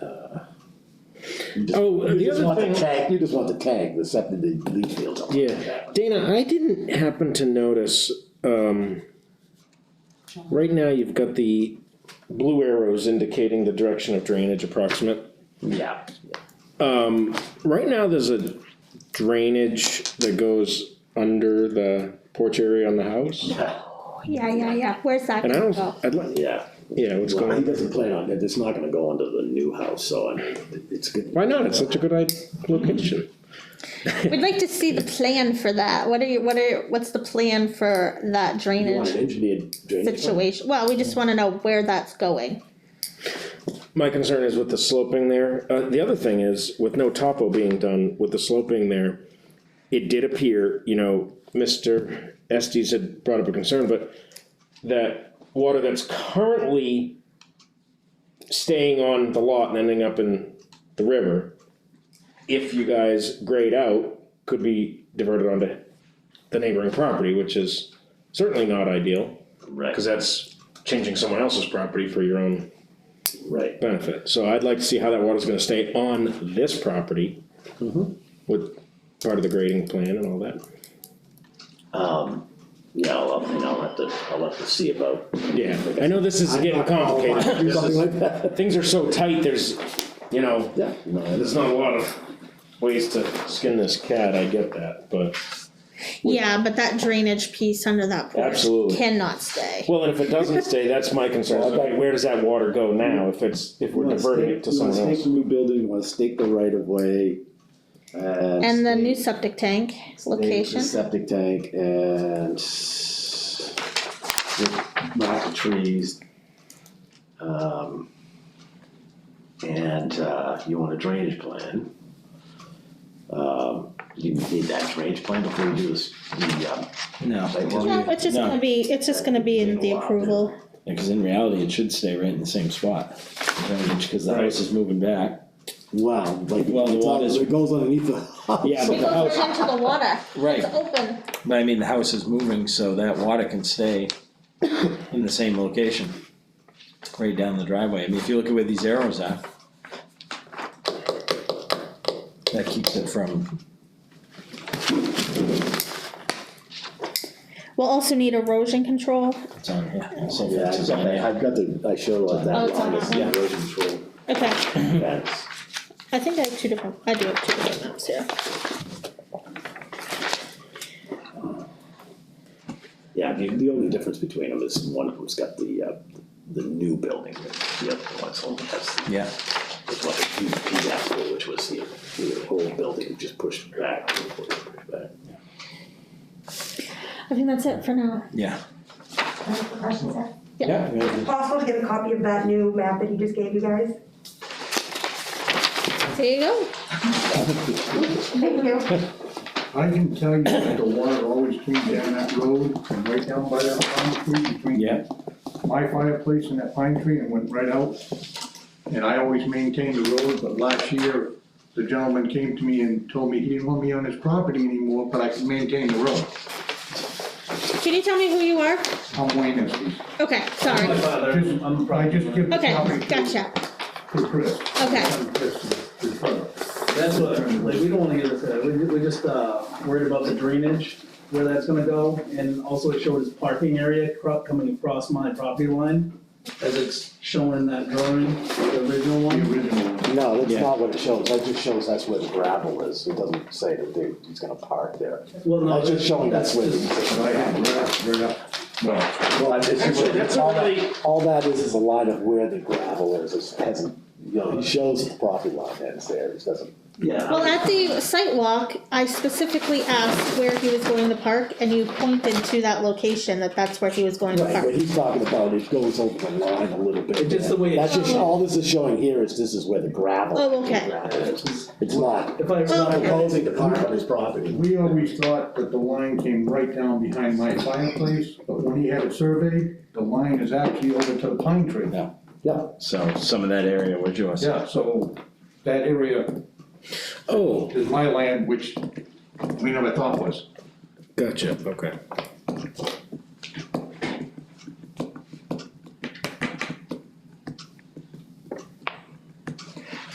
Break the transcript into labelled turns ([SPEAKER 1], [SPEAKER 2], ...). [SPEAKER 1] You just-
[SPEAKER 2] Oh, and the
[SPEAKER 1] you just
[SPEAKER 2] other
[SPEAKER 1] want to
[SPEAKER 2] thing-
[SPEAKER 1] tag- You just want to tag the septic, the leach fields. on.
[SPEAKER 2] Yeah, Dana, I didn't happen to notice, um. Right now, you've got the blue arrows indicating the direction of drainage approximate.
[SPEAKER 1] Yeah,
[SPEAKER 2] Right now, there's a drainage that goes under the porch area on the house.
[SPEAKER 3] Yeah, yeah, yeah, where's that
[SPEAKER 2] And I
[SPEAKER 3] gonna
[SPEAKER 2] don't,
[SPEAKER 3] go?
[SPEAKER 2] I'd like,
[SPEAKER 1] yeah.
[SPEAKER 2] yeah, what's
[SPEAKER 1] Well, he
[SPEAKER 2] going,
[SPEAKER 1] doesn't plan on, it. it's not gonna go under the new house, so I mean, it- it's good.
[SPEAKER 2] why not? It's such a good i- location.
[SPEAKER 3] We'd like to see the plan for that, what are you, what are, what's the plan for that
[SPEAKER 1] You want an
[SPEAKER 3] drainage
[SPEAKER 1] engineered drainage. plan?
[SPEAKER 3] situation? Well, we just wanna know where that's going,
[SPEAKER 2] My concern is with the sloping there, uh, the other thing is, with no topo being done, with the sloping there, it did appear, you know, Mr. Estes had brought up a concern, but that water that's currently staying on the lot and ending up in the river, if you guys grade out, could be diverted onto the neighboring property, which is certainly not ideal,
[SPEAKER 1] Right,
[SPEAKER 2] cause that's changing someone else's property for your own
[SPEAKER 1] right,
[SPEAKER 2] benefit, so I'd like to see how that water's gonna stay on this property. With part of the grading plan and all that,
[SPEAKER 1] yeah, I'll, I mean, I'll have to, I'll have to see about.
[SPEAKER 2] yeah, I know this is getting complicated,
[SPEAKER 1] Do
[SPEAKER 2] This
[SPEAKER 1] something
[SPEAKER 2] is-
[SPEAKER 1] like that.
[SPEAKER 2] things are so tight, there's, you know,
[SPEAKER 1] Yeah, no, I
[SPEAKER 2] there's
[SPEAKER 1] understand.
[SPEAKER 2] not a lot of ways to skin this cat, I get that, but.
[SPEAKER 3] yeah, but that drainage piece under that porch
[SPEAKER 2] Absolutely.
[SPEAKER 3] cannot stay.
[SPEAKER 2] Well, and if it doesn't stay, that's my concern, okay, where does that water go now, if it's, if we're
[SPEAKER 4] You wanna
[SPEAKER 2] diverting
[SPEAKER 4] stake-
[SPEAKER 2] it to
[SPEAKER 4] you wanna
[SPEAKER 2] someone
[SPEAKER 4] stake
[SPEAKER 2] else?
[SPEAKER 4] the New building, you wanna stake the right of way.
[SPEAKER 1] uh,
[SPEAKER 3] And the new septic tank location,
[SPEAKER 4] Septic tank and. s-
[SPEAKER 1] Mark the trees. Um. And, uh, you want a drainage plan. Um, you need that drainage plan before you do this, the, um.
[SPEAKER 5] No,
[SPEAKER 1] site work.
[SPEAKER 3] no, it's just
[SPEAKER 5] No.
[SPEAKER 3] gonna be, it's just gonna be in the approval,
[SPEAKER 5] because in reality, it should stay right in the same spot, because the house is moving back.
[SPEAKER 4] Wow, like,
[SPEAKER 5] Well, the
[SPEAKER 4] it's all-
[SPEAKER 5] water's-
[SPEAKER 4] it goes underneath the house.
[SPEAKER 5] Yeah, but
[SPEAKER 3] it
[SPEAKER 5] the
[SPEAKER 3] goes
[SPEAKER 5] house,
[SPEAKER 3] right into the water,
[SPEAKER 5] Right.
[SPEAKER 3] it's open.
[SPEAKER 5] but I mean, the house is moving, so that water can stay in the same location. Right down the driveway, I mean, if you look at where these arrows are. That keeps it from,
[SPEAKER 3] We'll also need erosion control,
[SPEAKER 5] it's on here, so
[SPEAKER 4] Yeah,
[SPEAKER 5] it's
[SPEAKER 4] I've
[SPEAKER 5] on
[SPEAKER 4] got that,
[SPEAKER 5] here.
[SPEAKER 4] I've got the, I showed like
[SPEAKER 3] Oh,
[SPEAKER 4] that
[SPEAKER 3] it's on
[SPEAKER 4] on
[SPEAKER 3] that
[SPEAKER 4] this
[SPEAKER 3] one.
[SPEAKER 4] erosion control.
[SPEAKER 3] okay,
[SPEAKER 1] That's,
[SPEAKER 3] I think I have two different, I do have two different maps here.
[SPEAKER 1] yeah, the, the only difference between them is one of them's got the, uh, the new building, the other one's only has the
[SPEAKER 5] Yeah,
[SPEAKER 1] It's like a huge fiasco, which was the, the whole building just pushed back, pushed back.
[SPEAKER 3] I think that's it for now.
[SPEAKER 5] yeah,
[SPEAKER 3] Yeah.
[SPEAKER 5] yeah, yeah.
[SPEAKER 6] Possible to get a copy of that new map that he just gave you guys?
[SPEAKER 3] There you go.
[SPEAKER 6] Thank you.
[SPEAKER 7] I can tell you that the water always came down that road and right down by that pine tree
[SPEAKER 5] Yeah.
[SPEAKER 7] between my fireplace and that pine tree and went right out. And I always maintained the road, but last year, the gentleman came to me and told me he didn't want me on his property anymore, but I could maintain the road.
[SPEAKER 3] Can you tell me who you are?
[SPEAKER 7] I'm Wayne Estes.
[SPEAKER 3] Okay, sorry.
[SPEAKER 7] Just-
[SPEAKER 8] Um,
[SPEAKER 7] I just give the
[SPEAKER 3] Okay,
[SPEAKER 7] property to-
[SPEAKER 3] gotcha.
[SPEAKER 7] to Chris.
[SPEAKER 3] Okay.
[SPEAKER 7] I'm Chris, his brother.
[SPEAKER 8] That's what, like, we don't wanna get into that, we, we're just, uh, worried about the drainage, where that's gonna go, and also it showed his parking area crop coming across my property line, as it's shown in that drawing, the original
[SPEAKER 7] The
[SPEAKER 8] one.
[SPEAKER 7] original one.
[SPEAKER 4] No, that's
[SPEAKER 5] Yeah.
[SPEAKER 4] not what it shows, that just shows that's where the gravel is, it doesn't say that they, he's gonna park there.
[SPEAKER 8] Well, no,
[SPEAKER 4] That's just showing that's where the.
[SPEAKER 7] Right up, right up, right up.
[SPEAKER 4] Well, I- it's,
[SPEAKER 8] Actually, that's
[SPEAKER 4] it's
[SPEAKER 8] a
[SPEAKER 4] all
[SPEAKER 8] really-
[SPEAKER 4] that, all that is, is a line of where the gravel is, it hasn't, you know, it shows the property line ends there, it doesn't.
[SPEAKER 8] Yeah,
[SPEAKER 3] Well, at the site walk, I specifically asked where he was going to park and you pointed to that location that that's where he was going to
[SPEAKER 4] Right,
[SPEAKER 3] park.
[SPEAKER 4] what he's talking about, it goes over the line a little bit.
[SPEAKER 8] It's just the way it-
[SPEAKER 4] That's just, all this is showing here is this is where the gravel.
[SPEAKER 3] Oh, okay.
[SPEAKER 4] is. It's not
[SPEAKER 8] if I
[SPEAKER 3] Well-
[SPEAKER 8] remember,
[SPEAKER 4] proposing to park on his property.
[SPEAKER 7] We always thought that the line came right down behind my fireplace, but when he had it surveyed, the line is actually over to the pine tree.
[SPEAKER 5] Yeah.
[SPEAKER 4] Yeah.
[SPEAKER 5] so some of that area was yours.
[SPEAKER 7] Yeah, so that area
[SPEAKER 2] Oh,
[SPEAKER 7] is my land, which we never thought was.
[SPEAKER 2] gotcha, okay.